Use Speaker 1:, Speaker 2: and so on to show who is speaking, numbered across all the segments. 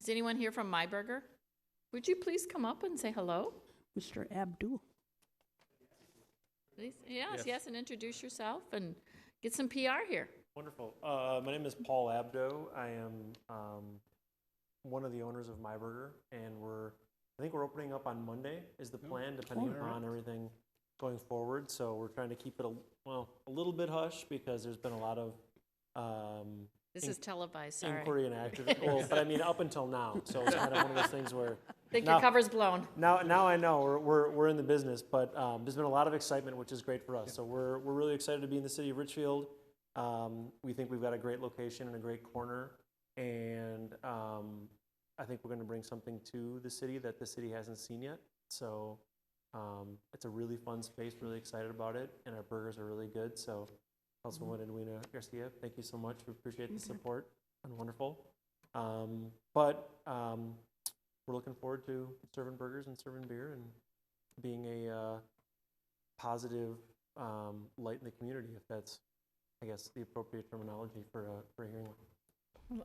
Speaker 1: Is anyone here from My Burger? Would you please come up and say hello?
Speaker 2: Mr. Abdul.
Speaker 1: Please, yes,
Speaker 3: Yes.
Speaker 1: yes, and introduce yourself and get some PR here.
Speaker 3: Wonderful. Uh, my name is Paul Abdo. I am um, one of the owners of My Burger, and we're I think we're opening up on Monday. Is the plan depending upon everything going forward? So we're trying to keep it a well a little bit hush because there's been a lot of um,
Speaker 1: This
Speaker 3: In-
Speaker 1: is televised, sorry.
Speaker 3: inquiry and activity. Well, but I mean up until now, so it's kind of one of those things where
Speaker 1: Think your
Speaker 3: now-
Speaker 1: cover's blown.
Speaker 3: now, now I know we're, we're, we're in the business, but um, there's been a lot of excitement, which is great for us. So we're, we're really excited to be in the city of Richfield. Um, we think we've got a great location and a great corner, and um, I think we're going to bring something to the city that the city hasn't seen yet. So um, it's a really fun space. Really excited about it, and our burgers are really good. So, Councilwoman Edwina Garcia, thank you so much. We appreciate the support and wonderful. Um, but um, we're looking forward to serving burgers and serving beer and being a uh, positive um, light in the community, if that's, I guess, the appropriate terminology for a, for a hearing.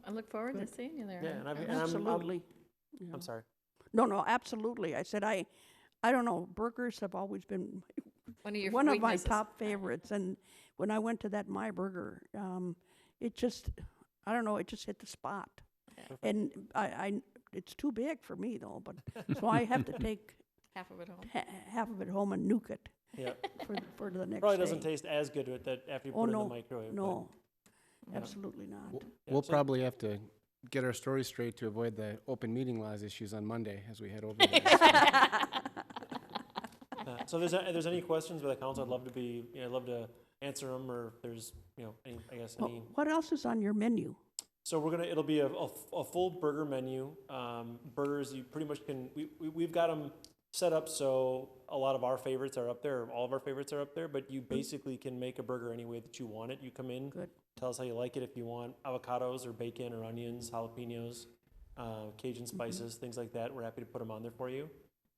Speaker 1: I look forward to seeing you there.
Speaker 3: Yeah, and, I've, and I'm, I'm,
Speaker 2: Absolutely. Yeah.
Speaker 3: I'm sorry.
Speaker 2: No, no, absolutely. I said I, I don't know. Burgers have always been
Speaker 1: One of your
Speaker 2: one of my
Speaker 1: weaknesses.
Speaker 2: top favorites. And when I went to that My Burger, um, it just, I don't know, it just hit the spot. And I, I, it's too big for me though. But so I have to take
Speaker 1: Half of it home.
Speaker 2: ha- half of it home and nuke it
Speaker 3: Yeah,
Speaker 2: for the, for the next.
Speaker 3: probably doesn't
Speaker 2: day.
Speaker 3: taste as good with that after you
Speaker 2: Oh
Speaker 3: put it
Speaker 2: no,
Speaker 3: in the microwave. but-
Speaker 2: No, absolutely not.
Speaker 4: We'll-
Speaker 3: Yeah,
Speaker 4: We'll
Speaker 3: so-
Speaker 4: probably have to get our story straight to avoid the open meeting laws issues on Monday as we head over there.
Speaker 3: Uh, so if there's, if there's any questions by the council, I'd love to be, you know, I'd love to answer them or if there's, you know, any, I guess,
Speaker 2: Well,
Speaker 3: any.
Speaker 2: what else is on your menu?
Speaker 3: So we're gonna, it'll be a, a f- a full burger menu. Um, burgers, you pretty much can, we, we, we've got them set up so a lot of our favorites are up there, all of our favorites are up there, but you basically can make a burger any way that you want it. You come in,
Speaker 2: Good.
Speaker 3: tell us how you like it, if you want avocados or bacon or onions, jalapenos, uh, Cajun spices, things like that. We're happy to put them on there for you.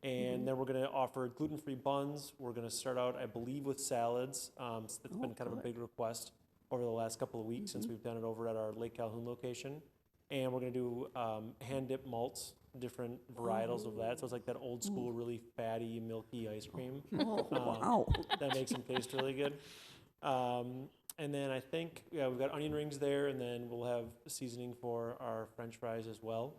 Speaker 3: And then we're gonna offer gluten-free buns. We're gonna start out, I believe, with salads. Um, s- it's been kind of a big request over the last couple of weeks since we've done it over at our Lake Calhoun location. And we're gonna do um, hand dipped malts, different varietals of that. So it's like that old school, really fatty, milky ice cream
Speaker 2: Oh,
Speaker 3: Um,
Speaker 2: wow.
Speaker 3: that makes them taste really good. Um, and then I think yeah, we've got onion rings there, and then we'll have seasoning for our French fries as well.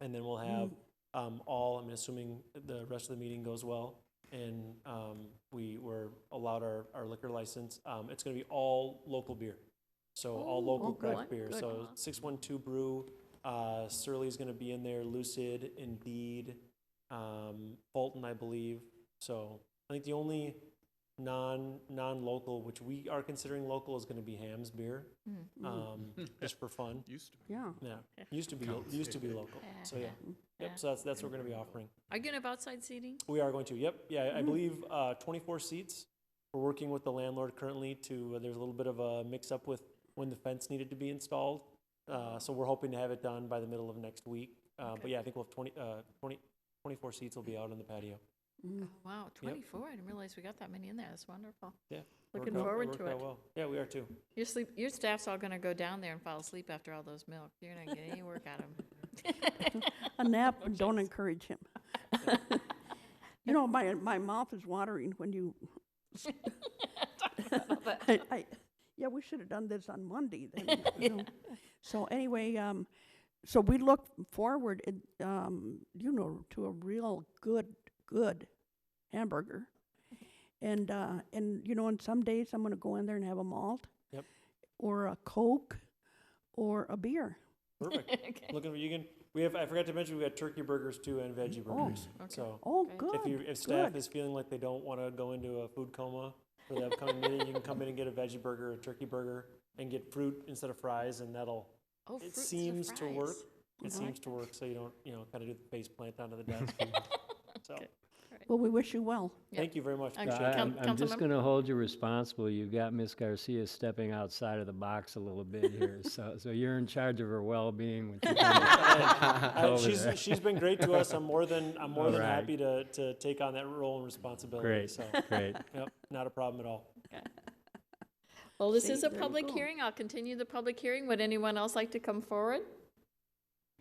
Speaker 3: And then we'll have um, all. I'm assuming the rest of the meeting goes well, and um, we were allowed our, our liquor license. Um, it's going to be all local beer, so all
Speaker 1: Oh,
Speaker 3: local
Speaker 1: good,
Speaker 3: craft beer.
Speaker 1: good.
Speaker 3: So six one two brew. Uh, Surly's going to be in there. Lucid, Indeed, um, Fulton, I believe. So I think the only non non local, which we are considering local, is going to be Ham's beer,
Speaker 1: Mm.
Speaker 3: um, just for fun.
Speaker 2: Yeah.
Speaker 3: Yeah, used to be used to be local. So yeah,
Speaker 1: Yeah.
Speaker 3: yep. So that's that's what we're going to be offering.
Speaker 1: Are you gonna have outside seating?
Speaker 3: We are going to. Yep. Yeah,
Speaker 1: Mm-hmm.
Speaker 3: I believe uh, 24 seats. We're working with the landlord currently to. uh, there's a little bit of a mix up with when the fence needed to be installed. Uh, so we're hoping to have it done by the middle of next week. Uh, But yeah, I think we'll have 20, uh, 20, 24 seats will be out on the patio.
Speaker 1: Oh, Wow, twenty-four. I didn't realize we got that many in there. That's wonderful.
Speaker 3: Yeah.
Speaker 1: Looking
Speaker 3: worked out-
Speaker 1: forward
Speaker 3: worked
Speaker 1: to
Speaker 3: out
Speaker 1: it.
Speaker 3: well. Yeah, we are too.
Speaker 1: Your sleep, your staff's all gonna go down there and fall asleep after all those milk. You're not getting any work out of them.
Speaker 2: A nap, and don't encourage him. You know, my, my mouth is watering when you. I- I- Yeah, we should have done this on Monday then. you know. So anyway, um, so we look forward, in, um, you know, to a real good, good hamburger. And, uh, and, you know, and some days I'm gonna go in there and have a malt.
Speaker 3: Yep.
Speaker 2: Or a Coke, or a beer.
Speaker 3: Perfect. Looking for you can. We have. I forgot to mention we got turkey burgers too and veggie burgers. So
Speaker 2: Oh, good.
Speaker 3: if you if staff
Speaker 2: good.
Speaker 3: is feeling like they don't want to go into a food coma for the upcoming meeting, you can come in and get a veggie burger, a turkey burger, and get fruit instead of fries, and that'll.
Speaker 1: Oh,
Speaker 3: It
Speaker 1: fruits and
Speaker 3: seems to work.
Speaker 1: fries.
Speaker 3: It seems to work, so you don't you know kind of do the face plant onto the desk. so
Speaker 2: Well, we wish you well.
Speaker 1: Yeah.
Speaker 3: thank you very much.
Speaker 1: Okay.
Speaker 3: appreciate
Speaker 1: Uh,
Speaker 3: it.
Speaker 1: Coun-
Speaker 5: I'm, I'm just
Speaker 1: Councilmember-
Speaker 5: going to hold you responsible. You've got Miss Garcia stepping outside of the box a little bit here, so so you're in charge of her well-being. When she comes.
Speaker 3: Uh,
Speaker 5: over
Speaker 3: she's
Speaker 5: there.
Speaker 3: she's been great to us. I'm more than I'm more
Speaker 5: All
Speaker 3: than
Speaker 5: right.
Speaker 3: happy to to take on that role and responsibility.
Speaker 5: Great,
Speaker 3: So
Speaker 5: great.
Speaker 3: yep, not a problem at all.
Speaker 1: Well, this is
Speaker 2: See,
Speaker 1: a
Speaker 2: there you
Speaker 1: public
Speaker 2: go.
Speaker 1: hearing. I'll continue the public hearing. Would anyone else like to come forward?